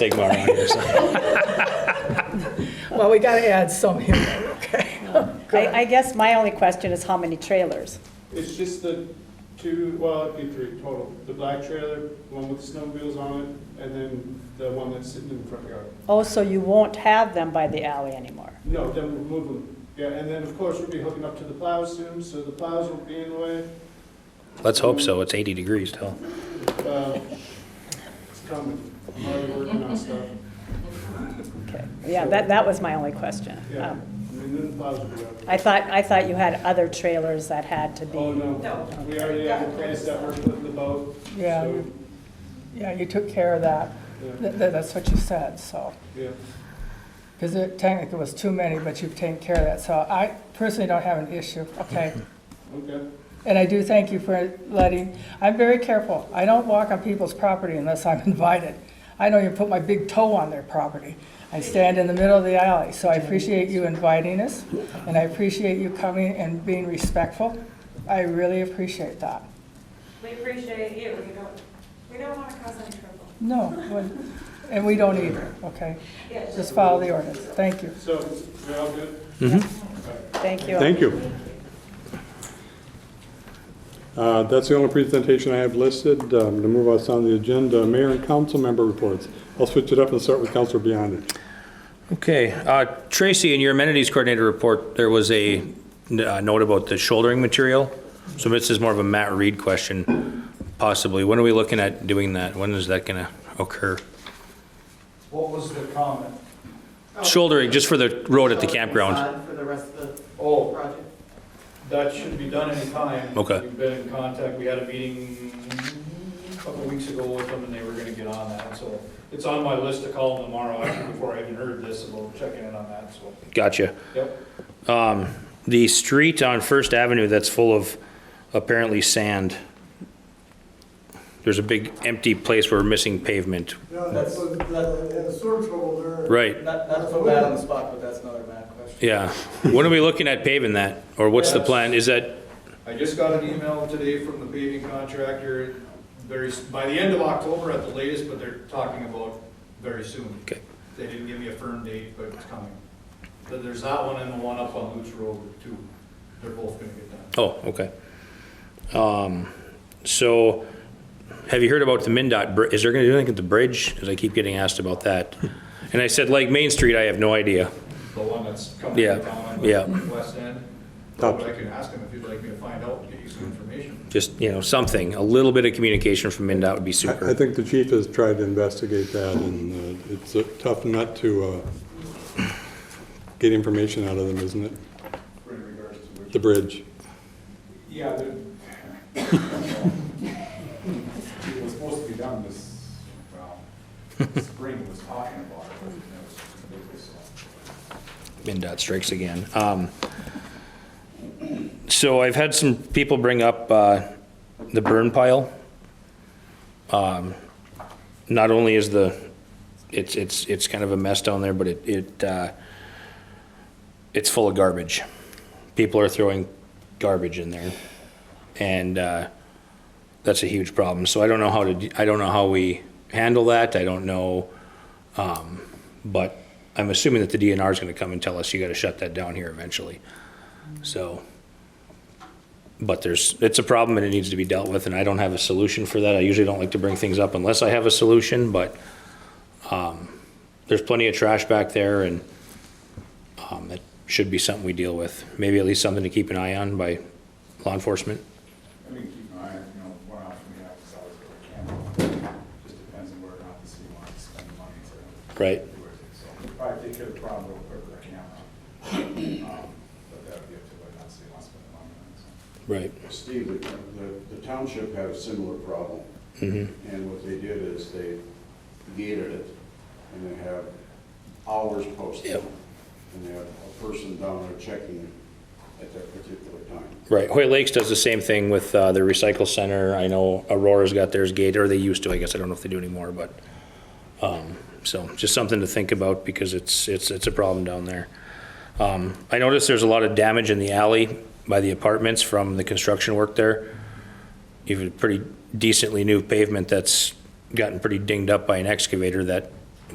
stigma around here, so. Well, we gotta add some here, okay? I, I guess my only question is how many trailers? It's just the two, well, it'd be three total. The black trailer, one with the snowmobiles on it, and then the one that's sitting in the front yard. Oh, so you won't have them by the alley anymore? No, then we'll move them. Yeah, and then, of course, we'll be hooking up to the plows soon, so the plows will be in the way. Let's hope so, it's 80 degrees still. Uh, It's coming. I'm already working on stuff. Okay. Yeah, that, that was my only question. Yeah, Um, I mean, then the plows will be out. I thought, I thought you had other trailers that had to Oh, be, no, we already have a place that we're putting the boat. Yeah. so, Yeah, you took care of that. Yeah, Th- th- That's what you said, so. yeah. Because it technically was too many, but you've taken care of that. So I personally don't have an issue, okay? okay. And I do thank you for letting, I'm very careful. I don't walk on people's property unless I'm invited. I don't even put my big toe on their property. I stand in the middle of the alley, so I appreciate you inviting us, and I appreciate you coming and being respectful. I really appreciate that. We appreciate you, we don't, we don't want to cause any trouble. No, well, and we don't either, okay? Yes. Just follow the ordinance. Thank you. So, we're all good? thank you. Thank you. Uh, That's the only presentation I have listed. Um, To move us on the agenda, mayor and council member reports. I'll switch it up and start with Councilor Biondi. Okay, uh, Tracy, in your amenities coordinator report, there was a n- uh, note about the shouldering material. So this is more of a Matt Reed question, possibly. When are we looking at doing that? When is that gonna occur? What was the comment? Shouldering, just for the road at the So, campground. it's on For the rest of the Oh, project? that should be done anytime. Okay. We've been in contact, we had a meeting a couple weeks ago with them, and they were gonna get on that, so it's on my list to call them tomorrow, actually, before I even heard this, and we'll check in on that, so, Gotcha. yep. Um, The street on First Avenue that's full of apparently sand. There's a big empty place where we're missing pavement. No, that's, what- that, the sewer trouble there. Right, Not, not to put Matt on the spot, but that's another Matt question. yeah. When are we looking at paving that? Or what's the plan? Is that I just got an email today from the paving contractor, very, s- by the end of October at the latest, but they're talking about very soon. Okay. They didn't give me a firm date, but it's coming. But there's that one and the one up on Luch Road too, they're both gonna get done. Oh, okay. Um, so, have you heard about the MinDOT, br- is there gonna do anything at the bridge? Cause I keep getting asked about that. And I said, like Main Street, I have no idea. The one that's coming Yeah, down on yeah. the west end. Top. But I can ask him if you'd like me to find out, get you some information. Just, you know, something, a little bit of communication from MinDOT would be I I super. think the chief has tried to investigate that, and uh, it's a tough nut to uh, get information out of them, isn't it? For in regards to which. The bridge. Yeah, the- it was supposed to be done this, well, spring was talking about it, but it was, it was MinDOT strikes again. Um, so I've had some people bring up, uh, the burn pile. Um, not only is the, it's, it's, it's kind of a mess down there, but it, it, uh, it's full of garbage. People are throwing garbage in there, and uh, that's a huge problem. So I don't know how to. d- I don't know how we handle that. I don't know, um, but I'm assuming that the DNR is going to come and tell us you got to shut that down here eventually. So, but there's it's a problem and it needs to be dealt with, and I don't have a solution for that. I usually don't like to bring things up unless I have a solution, but. Um, there's plenty of trash back there, and um, that should be something we deal with. Maybe at least something to keep an eye on by law enforcement. I mean, keep an eye, you know, one option we have is always go to camera. Just depends on where or not the city wants to spend the money to Right. do it. So we'll probably take care of the problem real quick with a camera. Um, But that would be up to whether or not the city wants to spend the money on it. so. Right. Steve, the- the, the township had a similar problem. And what they did is they gated it, and they have hours posted. Yep. And they have a person down there checking it at that particular time. Right. Hoyt Lakes does the same thing with uh, their recycle center. I know Aurora's got theirs gate, or they used to, I guess. I don't know if they do anymore, but, um, so just something to think about because it's, it's, it's a problem down there. Um, I noticed there's a lot of damage in the alley by the apartments from the construction work there. Even pretty decently new pavement that's gotten pretty dinged up by an excavator that